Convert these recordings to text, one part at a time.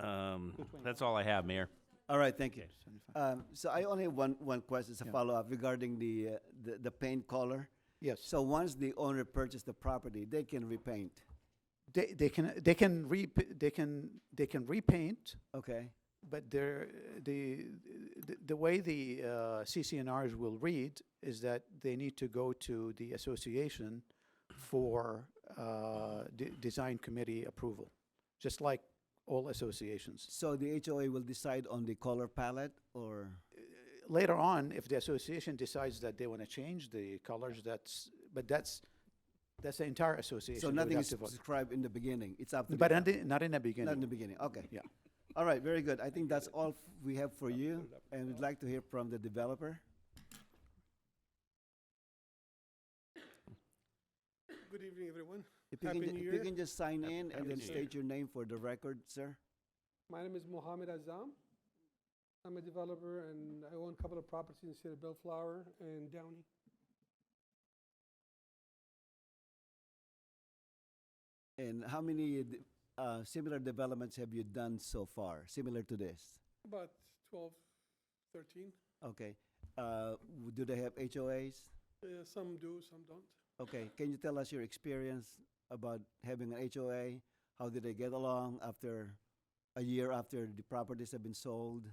Um, that's all I have, Mayor. All right, thank you. Um, so I only have one, one question, it's a follow-up regarding the, uh, the, the paint color. Yes. So once the owner purchased the property, they can repaint, They, they can, they can re, they can, they can repaint, okay? but they're, the, the, the way the, uh, CCNRs will read is that they need to go to the association for, uh, de- design committee approval, just like all associations. So the HOA will decide on the color palette or, later on, if the association decides that they want to change the colors, that's, but that's, that's the entire association. so that would nothing have is to vote. prescribed in the beginning, it's up to. the But owner. not in, not in the Not in the beginning. beginning, okay. Yeah. All right, very good. I think that's all f- we have for you, and we'd like to hear from the developer. Good evening, everyone. If you can, Happy ju- New if you Year. can just sign in Happy and then New Year. state your name for the record, sir. My name is Mohammed Azam. I'm a developer and I own a couple of properties in the city of Bellflower and Downey. And how many d- uh, similar developments have you done so far, similar to this? About 12, 13. Okay. Uh, w- do they have HOAs? Uh, Some do, some don't. Okay. Can you tell us your experience about having an HOA? How did they get along after a year after the properties have been sold?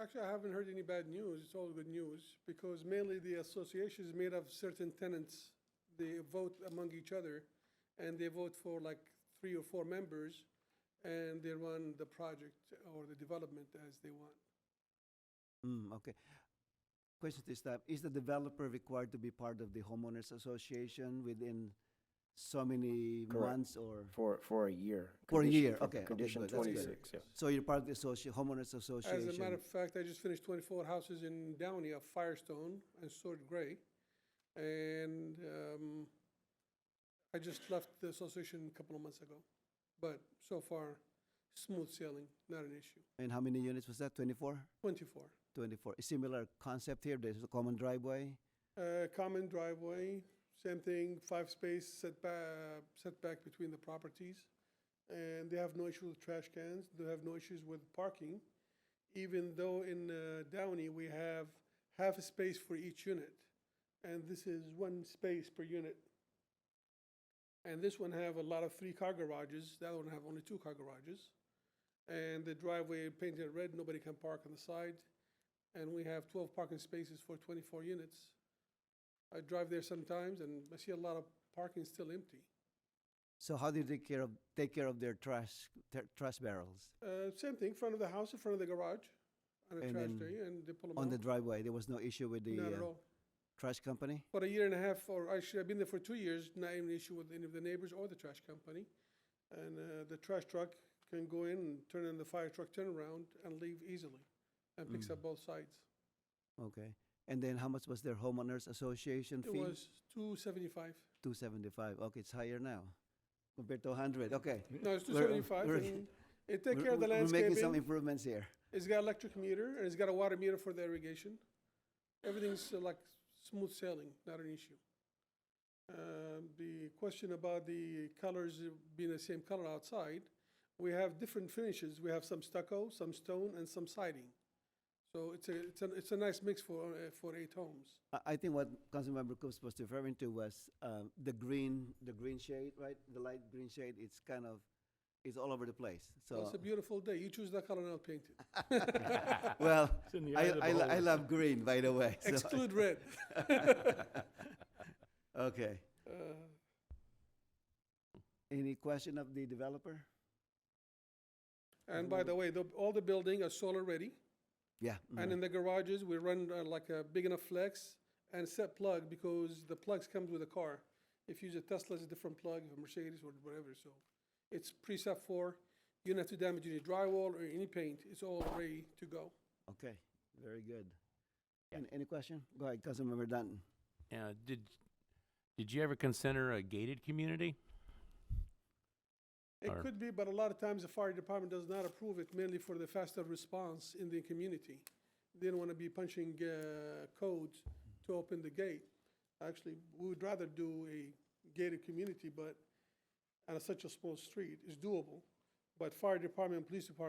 Actually, I haven't heard any bad news. It's all good news because mainly the association is made of certain tenants. They vote among each other and they vote for like three or four members and they run the project or the development as they want. Mm, okay. Question to staff: Is the developer required to be part of the homeowners association within so many Correct. months or? For, for a year. For a Condition- year, for okay, okay, Condition good, that's good. twenty-six, yeah. So you're part of the associ- homeowners association. As a matter of fact, I just finished 24 houses in Downey of Firestone and Sword Gray. And um, I just left the association a couple of months ago. But so far, smooth sailing, not an issue. and how many units was that? 24? 24. 24. A similar concept here. There's a common driveway. Uh, Common driveway, same thing, five space setback, setback between the properties. And they have no issue with trash cans, they have no issues with parking, even though in uh, Downey, we have half a space for each unit. And this is one space per unit. And this one have a lot of three-car garages, the other one have only two-car garages. And the driveway painted red, nobody can park on the side. And we have twelve parking spaces for twenty-four units. I drive there sometimes and I see a lot of parking still empty. So how did they care of, take care of their trash their trash barrels Uh, same thing, front of the house, in front of the garage, on a And trash then day, and they pull them on the out. driveway? There was no issue with the Not at uh, all. trash company. For a year and a half, or actually, I've been there for two years, not even an issue with any of the neighbors or the trash company. And, uh, the trash truck can go in and turn in the fire truck turnaround and leave easily, and picks Mm. up both sides. Okay. And then how much was their homeowners association It fee? was two seventy-five, 275. Okay, it's higher now compared to 100. Okay. no, it's two We're- seventy-five, we're- and it take We're- care of the we're- We're making some landscaping. improvements here. It's got electric meter and it's got a water meter for the irrigation. Everything's uh, like smooth sailing, not an issue. Um, the question about the colors uh, being the same color outside, we have different finishes. We have some stucco, some stone, and some siding. So it's a it's a it's a nice mix for uh, for eight homes. I, I think what Councilmember Coops was referring to was um, the green the green shade, right? The light green shade. It's kind of it's all over the place. So it's So a beautiful day. You choose the color and I'll paint it. well, in the eye I of the I, lo- I beholder. love green, by the way. so- Exclude red. okay. Uh, Any question of the developer? and by the way, the, all the building are solar ready. Yeah. And in the garages, we run uh, like a big enough flex and set plug because the plugs comes with the car. If you use a Tesla, it's a different plug, a Mercedes or whatever, so it's preset for. You don't have to damage any drywall or any paint. It's all ready to go. okay. Very good. An- Any question? Go ahead, Councilmember Dunton. Uh, did Did you ever consider a gated community? It Or- could be, but a lot of times the fire department does not approve it mainly for the faster response in the community. They don't want to be punching uh, codes to open the gate. Actually, we would rather do a gated community, but on such a small street, it's doable. But fire department, police department